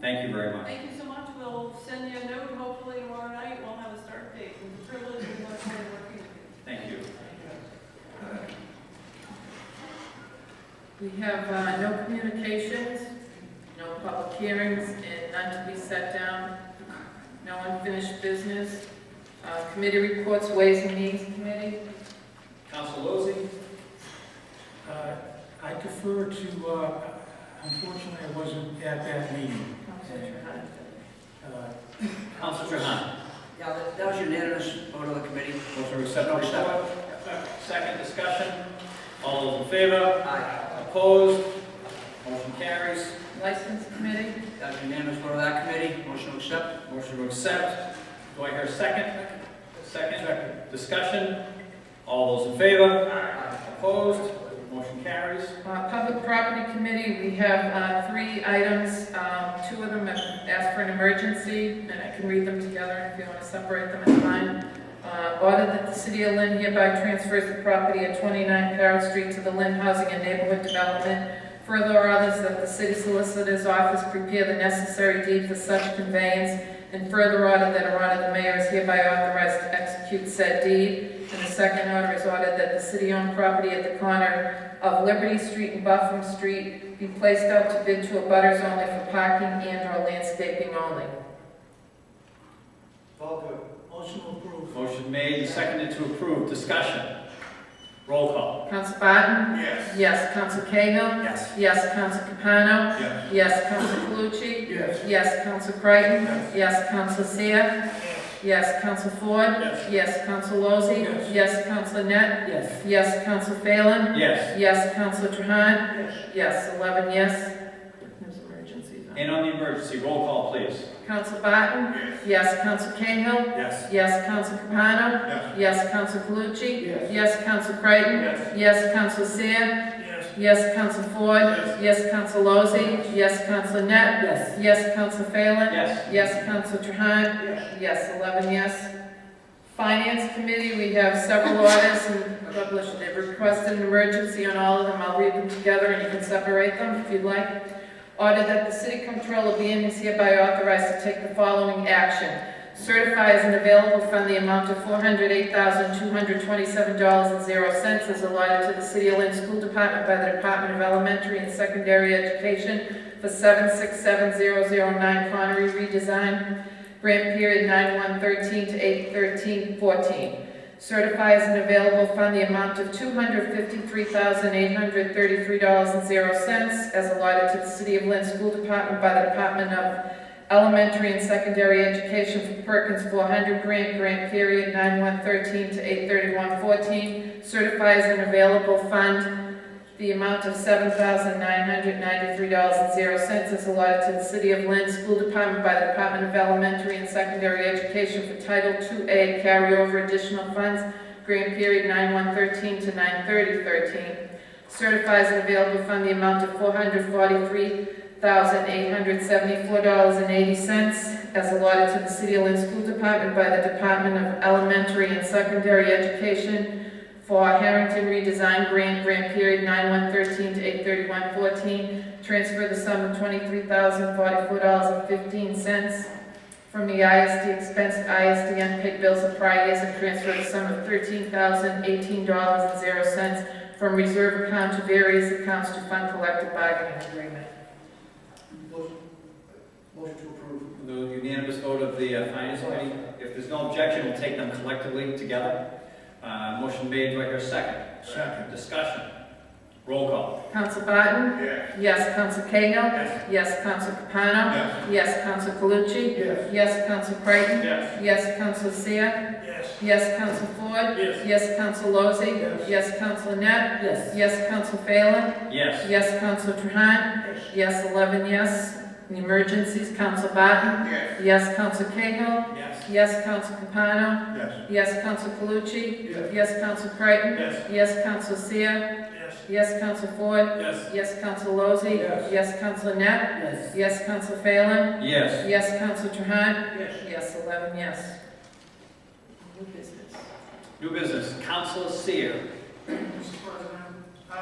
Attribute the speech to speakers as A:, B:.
A: Thank you very much.
B: Thank you so much, we'll send you a note, hopefully tomorrow night, we'll have a start date, and the privilege of much more working with you.
A: Thank you.
C: We have uh, no communications, no public hearings, and none to be set down, no unfinished business. Uh, Committee reports, Ways and Means Committee,
A: Council Lozey?
D: Uh, I defer to, uh, unfortunately, I wasn't at that meeting.
C: Counselor Trahan.
D: Uh,
A: Council Trahan?
E: Yeah, that- that was unanimous vote of the committee.
A: Motion to accept the report? Second discussion? All those in favor?
E: Aye.
A: Opposed? Motion carries.
C: License Committee,
E: That was unanimous vote of that committee. Motion to accept.
A: Motion to accept. Do I hear a second? Second. Discussion? All those in favor? Opposed? Motion carries.
C: Uh, Public Property Committee, we have uh, three items, Um, two of them have asked for an emergency, and I can read them together if you want to separate them in time. Uh, Order that the city of Lynn hereby transfers the property at 29 Carroll Street to the Lynn Housing and Neighborhood Development. Further orders that the city solicitor's office prepare the necessary deed for such conveyance, and further order that a order the mayor is hereby authorized to execute said deed. And the second order is ordered that the city-owned property at the corner of Liberty Street and Buffum Street be placed out to bid to abutters only for parking and/or landscaping only.
D: Motion approved.
A: Motion made and seconded to approve. Discussion? Roll call?
C: Counsel Barton?
A: Yes.
C: Yes. Counsel Cahill?
A: Yes.
C: Yes. Counsel Capano?
A: Yes.
C: Yes. Counsel Calucci?
D: Yes.
C: Yes. Counsel Creighton?
D: Yes.
C: Yes. Counsel Seer? Yes. Counsel Ford?
A: Yes.
C: Yes. Counsel Lozey?
D: Yes.
C: Yes. Counsel Net?
E: Yes.
C: Yes. Counsel Phelan?
A: Yes.
C: Yes. Counsel Trahan?
E: Yes.
C: Yes. Eleven yes. There's emergencies on.
A: And on the emergency, roll call, please.
C: Counsel Barton? Yes. Counsel Cahill?
A: Yes.
C: Yes, Counsel Capano?
A: Yes.
C: Yes, Counsel Calucci?
D: Yes.
C: Yes, Counsel Creighton?
A: Yes.
C: Yes, Counsel Seer?
D: Yes.
C: Yes, Counsel Ford?
A: Yes.
C: Yes, Counsel Lozey? Yes, Counsel Net?
E: Yes.
C: Yes, Counsel Phelan?
A: Yes.
C: Yes, Counsel Trahan? Yes, eleven yes. Finance Committee, we have several orders and published, they've requested an emergency on all of them, I'll read them together and you can separate them if you'd like. Order that the city controller be and is hereby authorized to take the following action. Certify as an available fund the amount of four hundred eight thousand two hundred twenty-seven dollars and zero cents as allotted to the City of Lynn School Department by the Department of Elementary and Secondary Education for seven six seven zero zero nine Connery redesign, grant period nine one thirteen to eight thirteen fourteen. Certify as an available fund the amount of two hundred fifty-three thousand eight hundred thirty-three dollars and zero cents as allotted to the City of Lynn School Department by the Department of Elementary and secondary education for Perkins 400 grant, grant period 9113 to 83114, certifies an available fund. The amount of $7,993.00 is allotted to the City of Lynn School Department by the Department of Elementary and Secondary Education for Title II-A carryover additional funds, grant period 9113 to 93013, certifies an available fund the amount of 443 $1,874.80 as allotted to the City of Lynn School Department by the Department of Elementary and Secondary Education for Harrington redesign grant, grant period 9113 to 83114. Transfer the sum of $23,044.15 from the ISD expense to ISD unpaid bills of prior years and transfer the sum of $13,018.00 from reserve account to various accounts to fund collective bargaining agreement.
E: Motion to approve.
A: The unanimous vote of the uh, Finance Committee, if there's no objection, we'll take them collectively together. Uh, Motion made, do I hear a second?
D: Second.
A: Discussion. Roll call.
C: Counsel Barton?
A: Yes.
C: Yes. Counsel Cahill?
A: Yes.
C: Yes. Counsel Capano?
A: Yes.
C: Yes. Counsel Calucci?
D: Yes.
C: Yes. Counsel Creighton?
A: Yes.
C: Yes. Counsel Seer?
D: Yes.
C: Yes. Counsel Ford?
D: Yes.
C: Yes. Counsel Lozey?
D: Yes.
C: Yes. Counsel Net?
E: Yes.
C: Yes. Counsel Phelan?
A: Yes.
C: Yes. Counsel Trahan?
D: Yes.
C: Yes. Eleven yes. In Emergencies, Counsel Barton?
A: Yes.
C: Yes. Counsel Cahill?
A: Yes.
C: Yes. Counsel Capano?
A: Yes.
C: Yes. Counsel Calucci?
D: Yes.
C: Yes. Counsel Creighton?
A: Yes.
C: Yes. Counsel Seer?
D: Yes.
C: Yes. Counsel Ford?
A: Yes.
C: Yes. Counsel Lozey?
D: Yes.
C: Yes. Counsel Net?
E: Yes.
C: Yes, Counsel Phelan?
A: Yes.
C: Yes, Counsel Trahan?
D: Yes.
C: Yes, eleven yes. New business.
A: New business, Council Seer.
F: Mr. President,